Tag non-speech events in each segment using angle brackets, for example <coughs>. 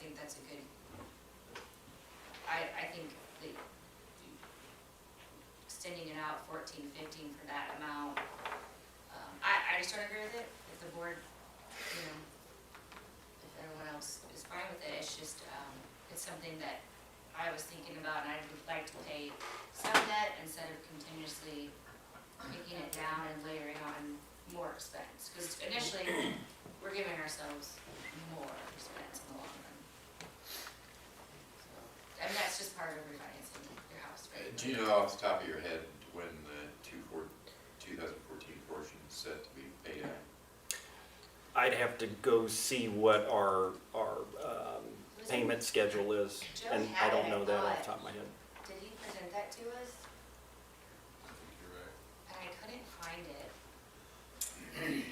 think that's a good, I, I think the, extending it out fourteen, fifteen for that amount, um, I, I just don't agree with it, if the board, you know, if everyone else is fine with it, it's just, um, it's something that I was thinking about, and I would like to pay some debt instead of continuously picking it down and layering on more expense, because initially, we're giving ourselves more expense in the long run. So, And that's just part of refinancing your house, Uh, right? Do you know off the top of your head when the two four, two thousand fourteen portion is set to be paid out? I'd have to go see what our, our um, Listen. payment schedule is, Joe and I had it, don't I know that off thought. the top of my head. Did he present that to us? You're right. And I couldn't find it. And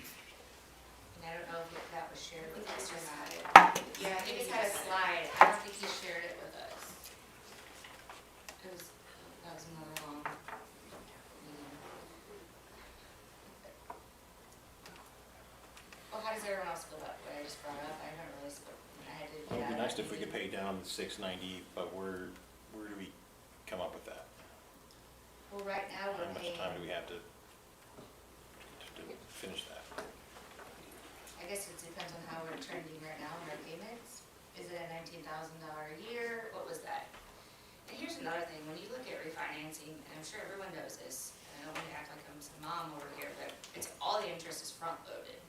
I don't know if that was shared with us or not. Yeah, I think it had a slide, I don't think he shared it with us. It was, that was more long. meeting. Well, how does everyone else feel about what I just brought up? I haven't really spoken, I had to. It would be yeah. nice if we could pay down the six ninety, but where, where do we come up with that? Well, right now, How we're much paying, time do we have to, to to finish that? I guess it depends on how we're trending right now in our payments. Is it a nineteen thousand dollar a year? What was that? And here's another thing, when you look at refinancing, and I'm sure everyone knows this, and I don't wanna act like I'm some mom over here, but it's, all the interest is front loaded.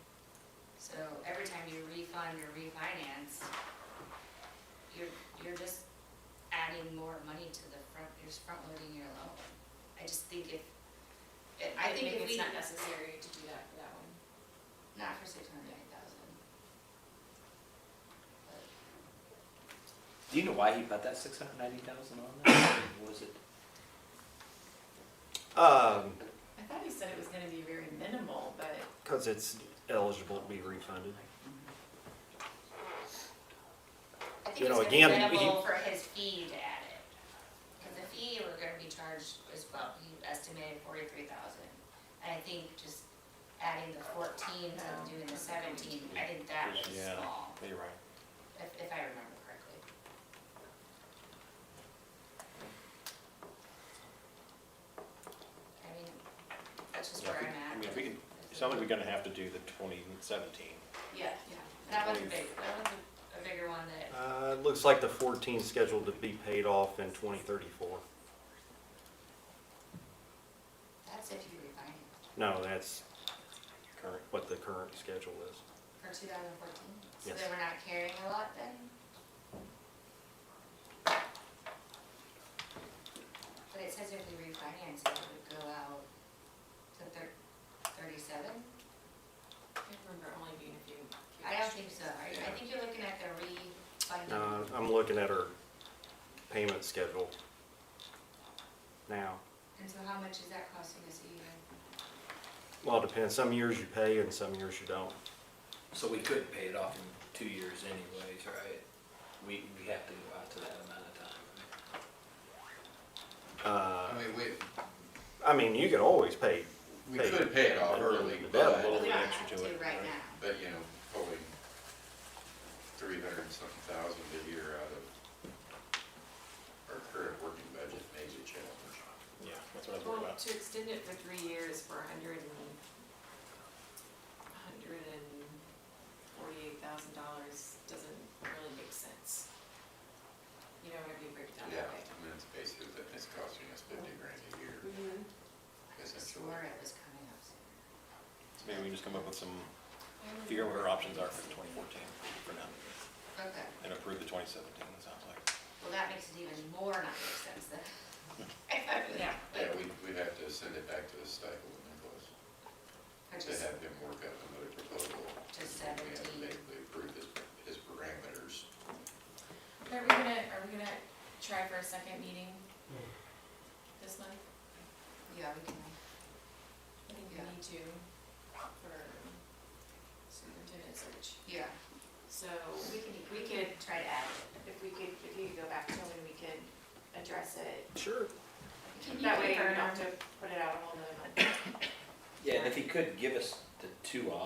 So every time you refund or refinance, you're, you're just adding more money to the front, you're just front loading your loan. I just think if, I think if we. it's not necessary to do that for that one. Not for six hundred and eight thousand. Do you know why he put that six hundred ninety thousand on there? <coughs> What Was it? Um, I thought he said it was gonna be very minimal, but cause it's eligible to be refunded. I think You it's know, gonna be again, he- minimal for his fee to add it. Cause the fee we're gonna be charged as well, he estimated forty-three thousand. And I think just adding the fourteen to doing the seventeen, I think that was Yeah. small, You're right. if, if I remember correctly. I mean, that's just Yeah, where if we- I'm at. I mean, if we can, it sounds like we're gonna have to do the twenty seventeen. yeah, yeah. That was a big, that was a- a bigger one that Uh, it looks like the fourteen scheduled to be paid off in twenty thirty-four. That's if you refinance No, that's current. what the current schedule is. for two thousand fourteen, so Yes. then we're not carrying a lot then? But it says if we refinance, it would go out to thir- thirty-seven? I remember only being a few. few I don't extra think so, years. I, I think you're looking at the refunding. Uh, I'm looking at our payment schedule now. And so how much is that costing us a year? Well, it depends. Some years you pay and some years you don't. So we couldn't pay it off in two years anyways, right? We, we have to go out to that amount of time, Uh, right? I mean, we, I mean, you could always pay. we Pay. could pay it off early, Yeah, a but, We little bit don't extra have to it, right right? now. but, you know, pulling three hundred and something thousand a year out of our current working budget may be a challenge. Yeah, that's what I was worried Well, about. to extend it for three years for a hundred and, a hundred and forty-eight thousand dollars doesn't really make sense. You know, whenever you break it down Yeah, that way. I mean, it's basically, that it's costing us fifty grand a year, I essentially. swore it was coming up soon. Maybe we can just come up with some, figure out what our options are for twenty fourteen for now, Okay. and approve the twenty seventeen, it sounds like. Well, that makes it even more not make sense then. <laughs> Yeah. Yeah, we, we'd have to send it back to the stipend, Nicholas, Or to just have him work out another proposal. To We have to 17. basically approve his, his parameters. Are we gonna, are we gonna try for a second meeting this month? Yeah, we can, I think we Yeah. need to for superintendent search. yeah, So we can, we could, try to add it. if we could, if you could go back to when we could address it. Sure. Can you That way you confirm- don't have to put it out a whole nother month. Yeah, and if he could give us the two options